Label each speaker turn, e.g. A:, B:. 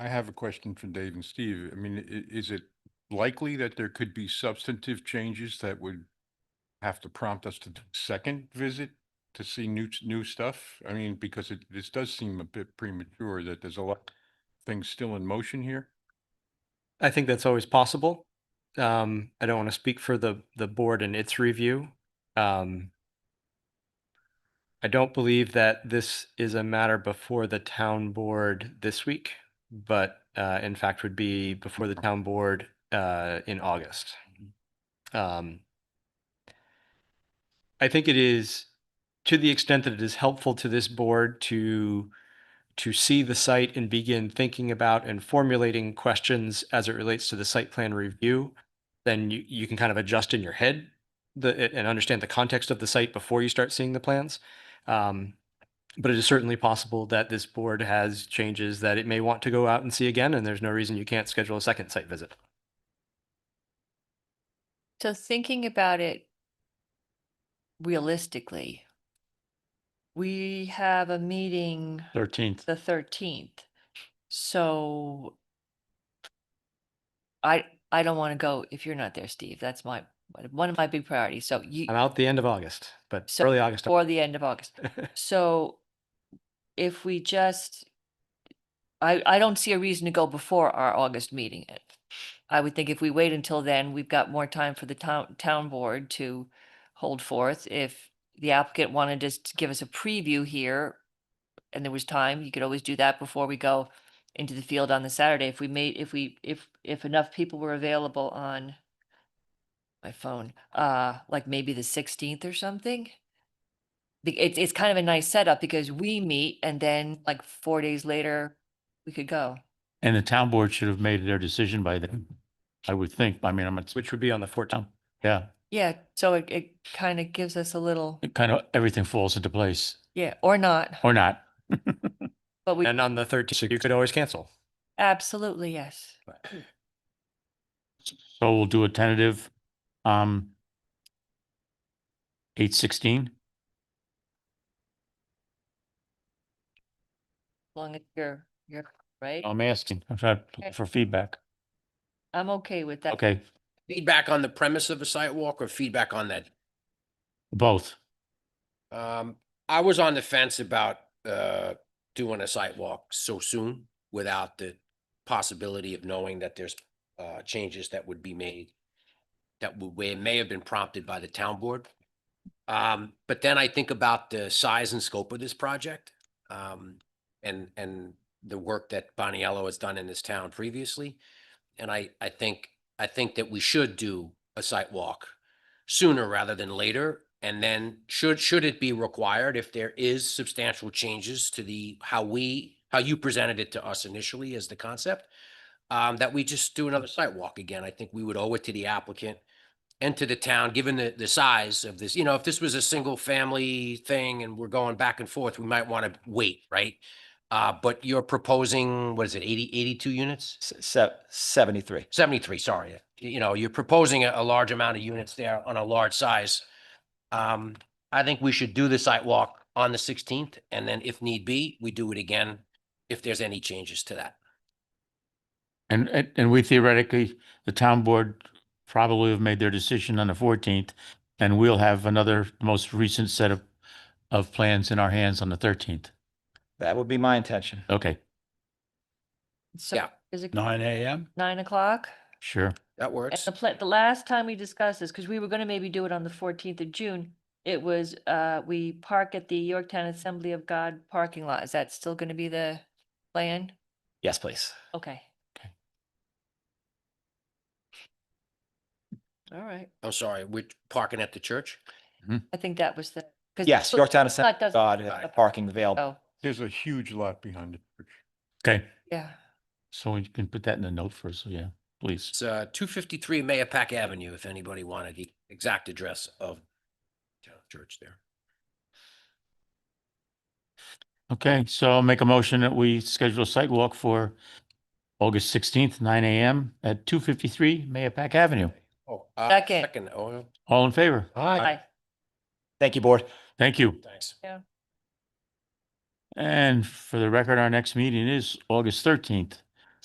A: I have a question for Dave and Steve. I mean, i- is it likely that there could be substantive changes that would have to prompt us to do a second visit to see new, t- new stuff? I mean, because it, this does seem a bit premature that there's a lot of things still in motion here.
B: I think that's always possible. Um, I don't want to speak for the, the board and its review. Um, I don't believe that this is a matter before the town board this week, but, uh, in fact would be before the town board, uh, in August. Um, I think it is, to the extent that it is helpful to this board to to see the site and begin thinking about and formulating questions as it relates to the site plan review, then you, you can kind of adjust in your head the, and understand the context of the site before you start seeing the plans. Um, but it is certainly possible that this board has changes that it may want to go out and see again, and there's no reason you can't schedule a second site visit.
C: So thinking about it realistically, we have a meeting
B: Thirteenth.
C: the thirteenth. So I, I don't want to go if you're not there, Steve. That's my, one of my big priorities. So you,
B: I'm out the end of August, but
C: So-
B: early August. I'm-
C: or the end of August. So if we just, I, I don't see a reason to go before our August meeting. I would think if we wait until then, we've got more time for the town, town board to hold forth. If the applicant wanted just to give us a preview here and there was time, you could always do that before we go into the field on the Saturday. If we made, if we, if, if enough people were available on my phone, uh, like maybe the sixteenth or something the- it's it's kind of a nice setup because we meet and then like four days later we could go.
D: And the town board should have made their decision by then, I would think. I mean, I'm, not-
B: Which would be on the fourteenth.
D: yeah,
C: Yeah, so it it kind of gives us a little
D: it kind of, everything falls into place
C: yeah or not,
D: or not.
C: but
E: Oh.
C: we
B: And on the thirteenth, you could always cancel.
C: absolutely yes.
D: So we'll do a tentative, um, eight sixteen.
C: As long as you're you're right,
D: I'm asking, I'm trying to look for feedback.
C: I'm okay with that.
D: Okay,
F: Feedback on the premise of a sidewalk or feedback on that?
D: both.
F: Um, I was on the fence about, uh, doing a sidewalk so soon without the possibility of knowing that there's, uh, changes that would be made that would, where may have been prompted by the town board. Um, but then I think about the size and scope of this project, um, and, and the work that Boniello has done in this town previously. And I, I think, I think that we should do a sidewalk sooner rather than later? And then should, should it be required if there is substantial changes to the, how we, how you presented it to us initially as the concept? Um, that we just do another site walk again. I think we would owe it to the applicant and to the town, given the, the size of this, you know, if this was a single family thing and we're going back and forth, we might want to wait, right? Uh, but you're proposing, what is it, 80 82 units?
E: Se- 73.
F: 73, sorry. You know, you're proposing a, a large amount of units there on a large size. Um, I think we should do the site walk on the 16th, and then if need be, we do it again if there's any changes to that.
D: And, and, and we theoretically, the town board probably have made their decision on the fourteenth. And we'll have another most recent set of, of plans in our hands on the thirteenth.
E: That would be my intention.
D: Okay,
C: So
F: Yeah.
C: is it
G: Nine AM?
C: nine o'clock?
D: sure.
F: That
C: And
F: works.
C: the pla- the last time we discussed this, because we were gonna maybe do it on the fourteenth of June, it was uh we park at the Yorktown Assembly of God parking lot. Is that still gonna be the plan?
E: Yes, please.
C: Okay. All right.
F: I'm sorry, we're parking at the church?
C: I think that was the. 'cause
E: Yes,
C: Bl-
E: Yorktown
C: Blood
E: Assembly,
C: doesn't-
E: God,
F: uh,
E: uh, parking available.
C: Oh,
A: There's a huge lot behind the church.
D: Okay,
C: yeah.
D: so we can put that in the note first, yeah, please.
F: It's uh, 253 Mayapack Avenue, if anybody wanted the exact address of town church there.
D: Okay, so I'll make a motion that we schedule a site walk for August sixteenth, nine AM at two fifty-three Mayapack Avenue.
F: Oh, uh,
C: Second.
F: Second, oh,
D: All in favor?
F: Aye.
C: Hi.
E: Thank you, board.
D: Thank you.
F: thanks.
D: And for the record, our next meeting is August thirteenth.